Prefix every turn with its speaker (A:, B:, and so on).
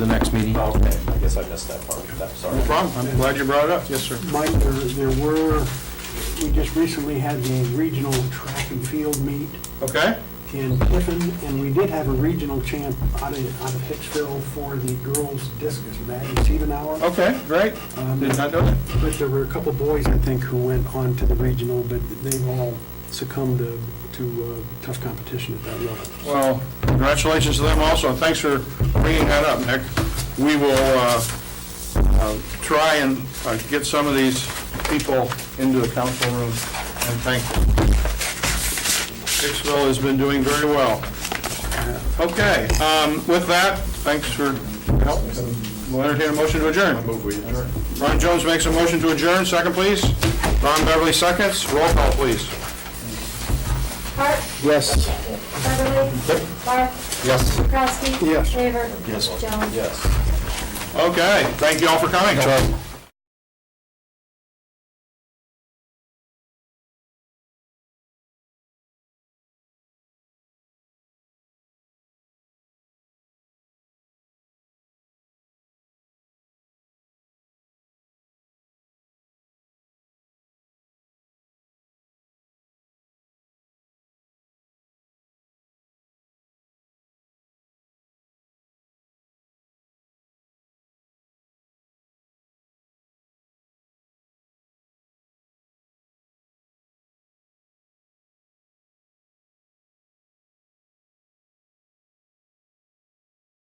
A: the next meeting.
B: Okay, I guess I missed that part, I'm sorry.
C: No problem, I'm glad you brought it up, yes, sir.
D: Mike, there there were, we just recently had the regional track and field meet
C: Okay,
D: in Tiffin, and we did have a regional champ out of, out of Hicksville for the girls discus, Maddie Siebenauer.
C: okay, great,
A: Um,
C: did not know that.
D: But there were a couple boys, I think, who went on to the regional, but they've all succumbed to, to uh, tough competition at that level.
C: Well, congratulations to them also, and thanks for bringing that up, Nick. We will uh, uh, try and uh, get some of these people into the council room and thank them. Hicksville has been doing very well. Okay, um, with that, thanks for your help. We'll entertain a motion to adjourn. Ron Jones makes a motion to adjourn, second please. Ron Beverly seconds, roll call please.
E: Hart?
A: Yes.
E: Beverly? Barth?
A: Yes.
E: Kraske?
D: Yes.
E: Favor? Yes. Jones?
B: Yes.
C: Okay, thank you all for coming.